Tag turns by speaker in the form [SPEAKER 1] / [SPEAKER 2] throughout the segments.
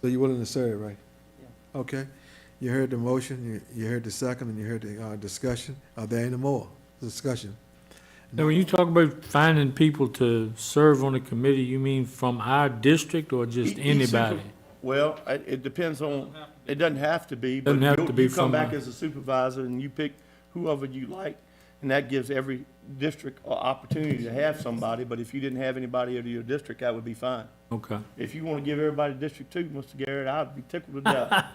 [SPEAKER 1] So you're willing to serve, right?
[SPEAKER 2] Yeah.
[SPEAKER 1] Okay, you heard the motion, you, you heard the second, and you heard the, uh, discussion. Are there any more discussion?
[SPEAKER 3] Now, when you talk about finding people to serve on the committee, you mean from our district or just
[SPEAKER 4] Each- each E-, central-
[SPEAKER 3] anybody?
[SPEAKER 4] Well, I- it depends on, it doesn't have to be, but
[SPEAKER 3] Doesn't have
[SPEAKER 4] you'll-
[SPEAKER 3] to be
[SPEAKER 4] you come
[SPEAKER 3] from
[SPEAKER 4] back
[SPEAKER 3] a-
[SPEAKER 4] as a supervisor and you pick whoever you like, and that gives every district an opportunity to have somebody, but if you didn't have anybody out of your district, that would be fine.
[SPEAKER 3] Okay.
[SPEAKER 4] If you want to give everybody District Two, Mr. Garrett, I'd be tickled to death.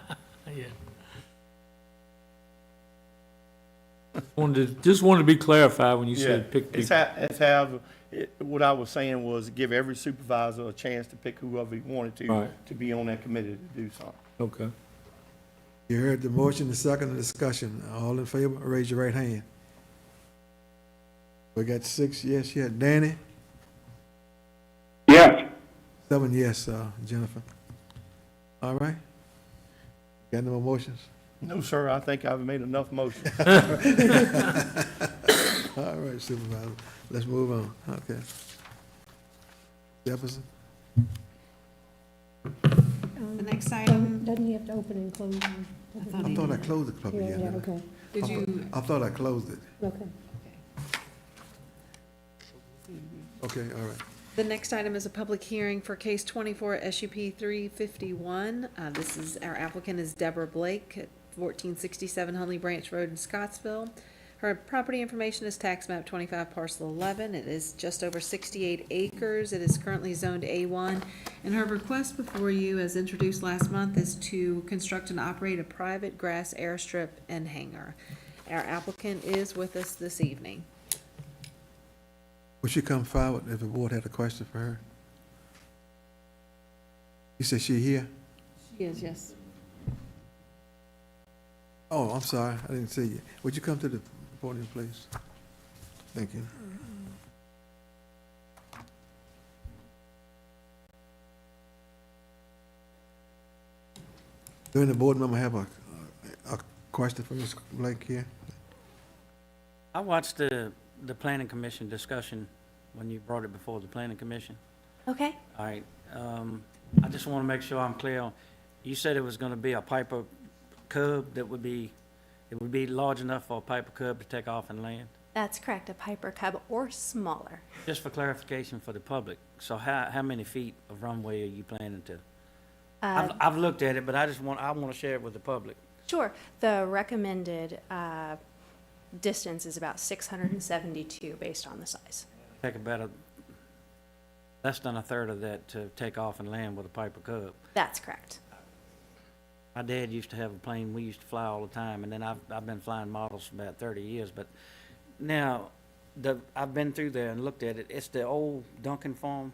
[SPEAKER 3] Wanted, to- just wanted to be clarified when you said pick
[SPEAKER 4] It's
[SPEAKER 3] people.
[SPEAKER 4] ha it's have, it, what I was saying was give every supervisor a chance to pick whoever he wanted to,
[SPEAKER 3] Right.
[SPEAKER 4] to be on that committee to do something.
[SPEAKER 3] Okay.
[SPEAKER 1] You heard the motion, the second, and discussion. All in favor, raise your right hand. We got six yes, yeah. Danny?
[SPEAKER 5] Yes.
[SPEAKER 1] Seven yes, uh, Jennifer. All right. Got no more motions?
[SPEAKER 4] No, sir, I think I've made enough motions.
[SPEAKER 1] All right, Supervisor, let's move on, okay. Jefferson?
[SPEAKER 6] The next
[SPEAKER 7] Doesn't
[SPEAKER 6] item,
[SPEAKER 7] doesn't he have to open and close? them?
[SPEAKER 1] I thought I closed the public
[SPEAKER 7] Yeah, yeah,
[SPEAKER 1] hearing.
[SPEAKER 7] okay,
[SPEAKER 6] did you,
[SPEAKER 1] I thought I closed it.
[SPEAKER 7] okay.
[SPEAKER 1] Okay, all right.
[SPEAKER 6] the next item is a public hearing for case twenty-four SUP three fifty-one. Uh, this is, our applicant is Deborah Blake at fourteen sixty-seven Hunley Branch Road in Scottsville. Her property information is tax map twenty-five parcel eleven. It is just over sixty-eight acres. It is currently zoned A one. And her request before you, as introduced last month, is to construct and operate a private grass airstrip and hangar. Our applicant is with us this evening.
[SPEAKER 1] Would she come forward if the board had a question for her? You said she here?
[SPEAKER 6] She is, yes.
[SPEAKER 1] Oh, I'm sorry, I didn't see you. Would you come to the podium, please? Thank you. Do any board member have a, a question for Ms. Blake here?
[SPEAKER 8] I watched the, the planning commission discussion when you brought it before the planning commission.
[SPEAKER 9] Okay.
[SPEAKER 8] All right, um, I just want to make sure I'm clear. on- You said it was going to be a Piper curb that would be, it would be large enough for a Piper curb to take off and land?
[SPEAKER 9] That's correct, a Piper Cub or smaller.
[SPEAKER 8] Just for clarification for the public, so how, how many feet of runway are you planning to?
[SPEAKER 9] Uh,
[SPEAKER 8] I've, I've looked at it, but I just want, I want to share it with the public.
[SPEAKER 9] Sure, the recommended uh, distance is about 672 based on the size.
[SPEAKER 8] Take about a, less than a third of that to take off and land with a Piper curb.
[SPEAKER 9] That's correct.
[SPEAKER 8] My dad used to have a plane, we used to fly all the time, and then I've, I've been flying models for about thirty years, but now, the, I've been through there and looked at it, it's the old Duncan farm,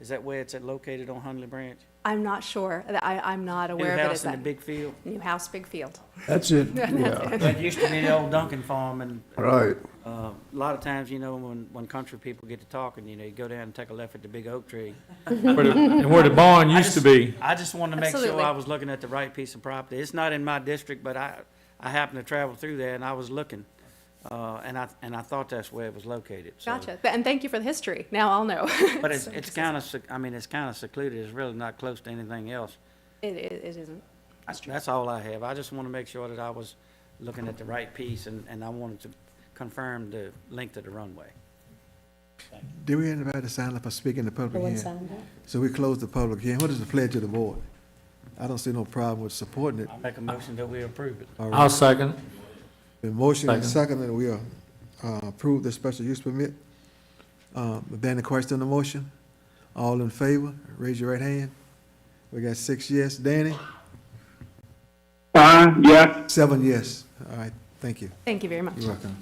[SPEAKER 8] is that where it's at located on Hunley Branch?
[SPEAKER 9] I'm not sure, I, I'm not
[SPEAKER 8] New
[SPEAKER 9] aware of it as
[SPEAKER 8] house in the
[SPEAKER 9] that.
[SPEAKER 8] big field,
[SPEAKER 9] New house, big field.
[SPEAKER 5] That's it, yeah,
[SPEAKER 8] that used to be the old Duncan farm, and,
[SPEAKER 5] right.
[SPEAKER 8] uh, a lot of times, you know, when, when country people get to talking, you know, you go down and take a left at the big oak tree.
[SPEAKER 3] Where the- And where the barn used to be.
[SPEAKER 8] I just wanted to make sure
[SPEAKER 9] Absolutely.
[SPEAKER 8] I was looking at the right piece of property. It's not in my district, but I, I happened to travel through there and I was looking. Uh, and I, and I thought that's where it was located, so.
[SPEAKER 9] Gotcha, Th- and thank you for the history, now I'll know.
[SPEAKER 8] But it's, it's kind of, I mean, it's kind of secluded. It's really not close to anything else.
[SPEAKER 9] It, it it isn't.
[SPEAKER 8] That's all I have. I just want to make sure that I was looking at the right piece and, and I wanted to confirm the length of the runway.
[SPEAKER 1] Did we have anybody sign up for speaking in the
[SPEAKER 7] The
[SPEAKER 1] public
[SPEAKER 7] one
[SPEAKER 1] hearing?
[SPEAKER 7] signed up.
[SPEAKER 1] So we closed the public hearing. What is the pledge of the board? I don't see no problem with supporting it.
[SPEAKER 8] I make a motion that we approve it.
[SPEAKER 1] All
[SPEAKER 3] I'll
[SPEAKER 1] right.
[SPEAKER 3] second.
[SPEAKER 1] The motion is second, and we uh, approve the special use permit. Um, Is there any question on the motion? All in favor, raise your right hand. We got six yes. Danny?
[SPEAKER 5] Uh, yes.
[SPEAKER 1] Seven yes. All right, thank you.
[SPEAKER 9] Thank you very much.
[SPEAKER 1] You're welcome.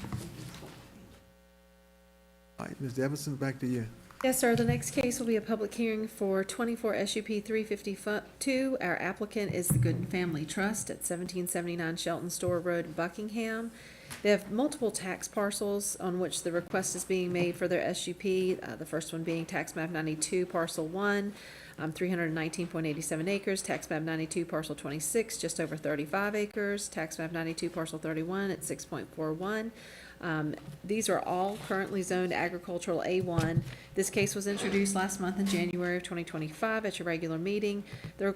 [SPEAKER 1] All right, Mr. Evanson, back to you.
[SPEAKER 6] Yes, sir. The next case will be a public hearing for twenty-four SUP three fifty-two. Our applicant is the Gooden Family Trust at seventeen seventy-nine Shelton Store Road, Buckingham. They have multiple tax parcels on which the request is being made for their SUP, uh, the first one being tax map ninety-two parcel one, um, three hundred and nineteen point eighty-seven acres, tax map ninety-two parcel twenty-six, just over thirty-five acres, tax map ninety-two parcel thirty-one at six point four one. Um, these are all currently zoned agricultural A one. This case was introduced last month in January of twenty twenty-five at your regular meeting. The